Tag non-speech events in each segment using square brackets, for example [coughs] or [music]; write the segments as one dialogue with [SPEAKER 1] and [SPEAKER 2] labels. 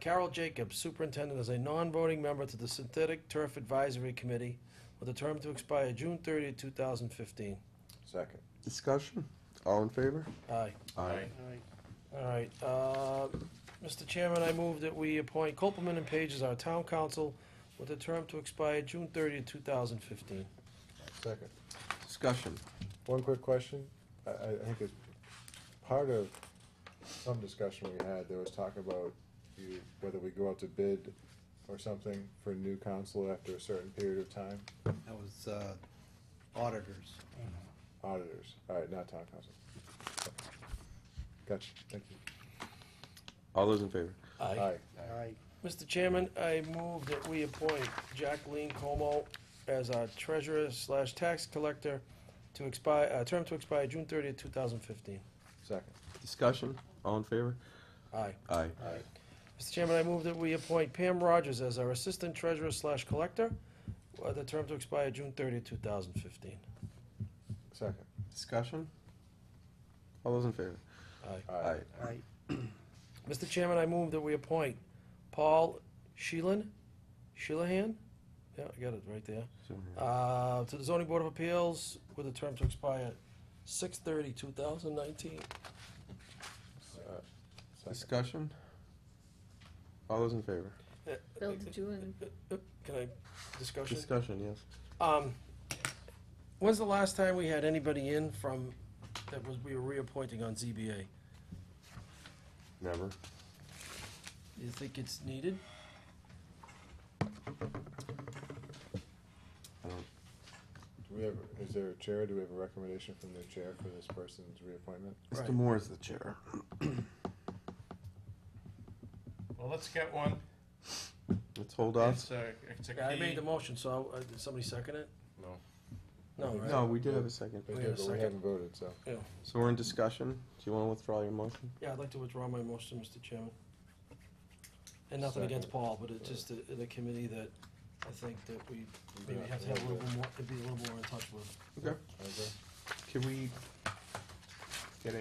[SPEAKER 1] Carol Jacobs, superintendent, as a non-voting member to the Synthetic Turf Advisory Committee with a term to expire June 30, 2015.
[SPEAKER 2] Second.
[SPEAKER 3] Discussion? All in favor?
[SPEAKER 1] Aye.
[SPEAKER 3] Aye.
[SPEAKER 1] All right, uh, Mr. Chairman, I move that we appoint Copeland and Page as our town council with a term to expire June 30, 2015.
[SPEAKER 2] Second.
[SPEAKER 3] Discussion?
[SPEAKER 2] One quick question. I, I I think it's part of some discussion we had, there was talk about you, whether we go out to bid or something for new council after a certain period of time.
[SPEAKER 4] That was uh, auditors.
[SPEAKER 2] Auditors, all right, not town council. Gotcha, thank you.
[SPEAKER 3] All those in favor?
[SPEAKER 2] Aye.
[SPEAKER 4] Aye.
[SPEAKER 1] Mr. Chairman, I move that we appoint Jacqueline Como as our treasurer slash tax collector to expire, uh, term to expire June 30, 2015.
[SPEAKER 2] Second.
[SPEAKER 3] Discussion? All in favor?
[SPEAKER 1] Aye.
[SPEAKER 3] Aye.
[SPEAKER 1] Mr. Chairman, I move that we appoint Pam Rogers as our assistant treasurer slash collector, uh, the term to expire June 30, 2015.
[SPEAKER 2] Second.
[SPEAKER 3] Discussion? All those in favor?
[SPEAKER 1] Aye.
[SPEAKER 2] Aye.
[SPEAKER 4] Aye.
[SPEAKER 1] Mr. Chairman, I move that we appoint Paul Sheelan, Sheelahan? Yeah, I got it right there. Uh, to the zoning board of appeals with a term to expire 2019.
[SPEAKER 2] Uh, Second.
[SPEAKER 3] Discussion? All those in favor?
[SPEAKER 5] Bill, did you and
[SPEAKER 1] Can I, discussion?
[SPEAKER 3] Discussion, yes.
[SPEAKER 1] Um, when's the last time we had anybody in from, that was, we were reappointing on ZBA?
[SPEAKER 3] Never.
[SPEAKER 1] Do you think it's needed?
[SPEAKER 2] Do we have, is there a chair? Do we have a recommendation from the chair for this person's reappointment?
[SPEAKER 3] Mr.
[SPEAKER 1] Right.
[SPEAKER 3] Moore is the chair.
[SPEAKER 6] Well, let's get one.
[SPEAKER 3] Let's hold off.
[SPEAKER 6] It's a, it's a
[SPEAKER 1] Yeah, I made
[SPEAKER 6] key.
[SPEAKER 1] the motion, so, uh, did somebody second it?
[SPEAKER 6] No.
[SPEAKER 1] No, right?
[SPEAKER 3] No, we did have a second.
[SPEAKER 2] We
[SPEAKER 1] We have a
[SPEAKER 2] did, but we
[SPEAKER 1] second.
[SPEAKER 2] haven't voted, so.
[SPEAKER 3] So we're in discussion. Do you want to withdraw your motion?
[SPEAKER 1] Yeah, I'd like to withdraw my motion, Mr. Chairman. And nothing against
[SPEAKER 2] Second.
[SPEAKER 1] Paul, but it's just the, the committee that I think that we maybe have to have a little bit more, to be a little more in touch with.
[SPEAKER 3] Okay.
[SPEAKER 2] I agree.
[SPEAKER 3] Can we get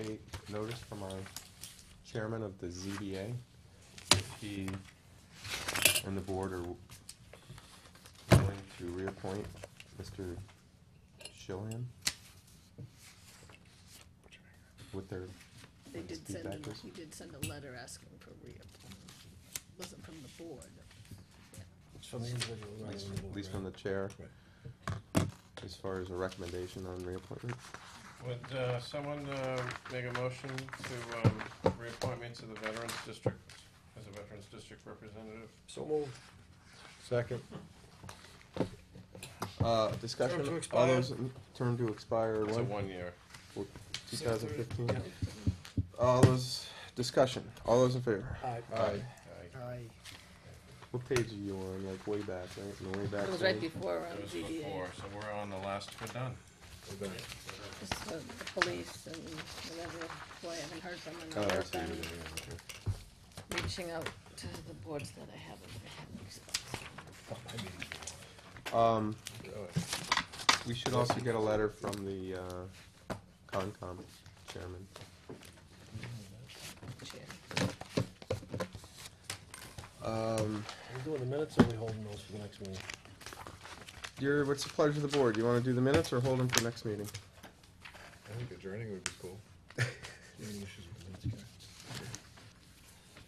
[SPEAKER 3] a notice from our chairman of the ZBA? if He and the board are willing to reappoint Mr. Shilhan with their,
[SPEAKER 5] they
[SPEAKER 3] His
[SPEAKER 5] did send,
[SPEAKER 3] feedback
[SPEAKER 5] a-
[SPEAKER 3] was-
[SPEAKER 5] he did send a letter asking for reappointment. Wasn't from the board.
[SPEAKER 1] It's from the individual,
[SPEAKER 3] at
[SPEAKER 1] right?
[SPEAKER 3] least-
[SPEAKER 1] from the board,
[SPEAKER 3] at least from
[SPEAKER 1] right?
[SPEAKER 3] the chair, as far as a recommendation on reappointment.
[SPEAKER 6] Would, uh, someone, uh, make a motion to, um, reappoint me to the Veterans District as a Veterans District Representative?
[SPEAKER 1] So moved.
[SPEAKER 2] Second.
[SPEAKER 3] Uh, discussion,
[SPEAKER 1] Term to
[SPEAKER 3] all
[SPEAKER 1] expire.
[SPEAKER 3] those, in- term to expire
[SPEAKER 6] It's a
[SPEAKER 3] when?
[SPEAKER 6] one-year.
[SPEAKER 3] Two thousand fifteen? All those, discussion, all those in favor?
[SPEAKER 1] Aye.
[SPEAKER 2] Aye.
[SPEAKER 6] Aye.
[SPEAKER 4] Aye.
[SPEAKER 3] What page are you on? Like way back, right? In the way back.
[SPEAKER 5] It was right
[SPEAKER 3] thing?
[SPEAKER 5] before
[SPEAKER 6] It
[SPEAKER 5] um,
[SPEAKER 6] was
[SPEAKER 5] ZBA.
[SPEAKER 6] before, so we're on the last, we're done.
[SPEAKER 2] We're done.
[SPEAKER 5] Just, uh, the Police and whatever, boy, I haven't heard from them.
[SPEAKER 3] Oh,
[SPEAKER 5] and
[SPEAKER 3] I
[SPEAKER 5] I've
[SPEAKER 3] see.
[SPEAKER 5] been Reaching out to the boards that I haven't had response.
[SPEAKER 3] Um,
[SPEAKER 2] Really?
[SPEAKER 3] we should also get a letter from the uh, Concom chairman.
[SPEAKER 5] Chair.
[SPEAKER 3] Um,
[SPEAKER 1] Are we doing the minutes or are we holding those for the next meeting?
[SPEAKER 3] your what's the pleasure of the board? You want to do the minutes or hold them for next meeting?
[SPEAKER 2] I think adjourning would be cool.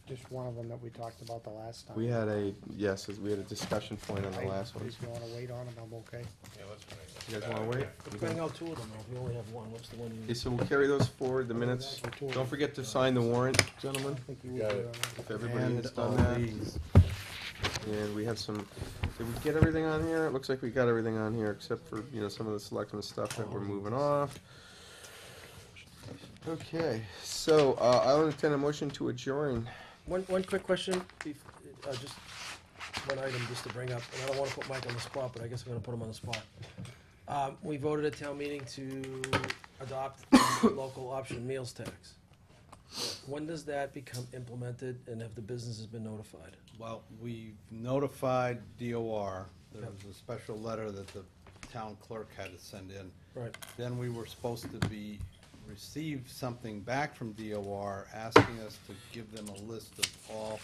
[SPEAKER 7] Just one of them that we talked about the last time.
[SPEAKER 3] We had a yes, we had a discussion point on
[SPEAKER 7] I-
[SPEAKER 3] the last one.
[SPEAKER 7] If you wanna wait on them, I'm okay.
[SPEAKER 6] Yeah, let's wait.
[SPEAKER 3] You guys want to wait?
[SPEAKER 1] We bring out two of them, though, we only have one, what's the one
[SPEAKER 3] Okay,
[SPEAKER 1] you?
[SPEAKER 3] so we'll carry those forward. The minutes. Don't forget to sign the warrant,
[SPEAKER 7] I
[SPEAKER 3] gentlemen.
[SPEAKER 7] think you
[SPEAKER 2] You got
[SPEAKER 7] would,
[SPEAKER 2] it.
[SPEAKER 7] uh,
[SPEAKER 3] If everybody has
[SPEAKER 4] And
[SPEAKER 3] done
[SPEAKER 4] all
[SPEAKER 3] that.
[SPEAKER 4] these.
[SPEAKER 3] And we have some, did we get everything on here? It looks like we got everything on here, except for, you know, some of the selectmen stuff that we're moving off. Okay, so, uh, I'll entertain a motion to adjourn.
[SPEAKER 1] One, one quick question, bef- uh, just one item just to bring up, and I don't wanna put Mike on the spot, but I guess I'm gonna put him on the spot. Um, we voted at town meeting to adopt the [coughs] local option meals tax. When does that become implemented and have the businesses been notified?
[SPEAKER 4] Well, we've notified DOR. There was a special letter that the town clerk had to send in.
[SPEAKER 1] Right,
[SPEAKER 4] Then we were supposed to be, receive something back from DOR asking us to give them a list of all